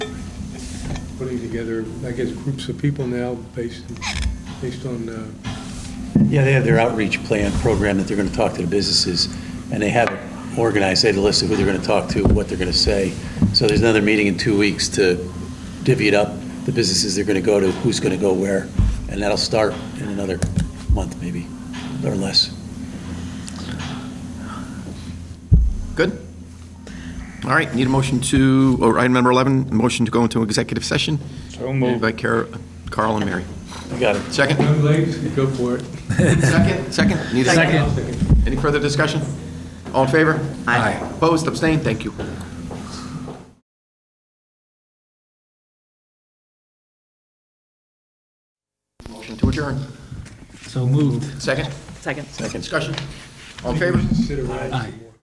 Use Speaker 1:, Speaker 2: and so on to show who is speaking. Speaker 1: putting together, I guess, groups of people now based, based on, uh,
Speaker 2: Yeah, they have their outreach plan program that they're going to talk to the businesses, and they have it organized, they have a list of who they're going to talk to, what they're going to say. So there's another meeting in two weeks to divvy it up, the businesses they're going to go to, who's going to go where, and that'll start in another month maybe, or less.
Speaker 3: Good? All right, need a motion to, or item number 11, a motion to go into executive session? So moved. By Car- Carl and Mary.
Speaker 2: I got it.
Speaker 3: Second?
Speaker 1: young ladies, go for it.
Speaker 3: Second? Second? Need a second?
Speaker 1: Second.
Speaker 3: Any further discussion? All in favor? Aye. Opposed, abstained, thank you. Motion to adjourn.
Speaker 4: So moved.
Speaker 3: Second?
Speaker 5: Second.
Speaker 3: Discussion? All in favor?
Speaker 1: Sit around.
Speaker 4: Aye.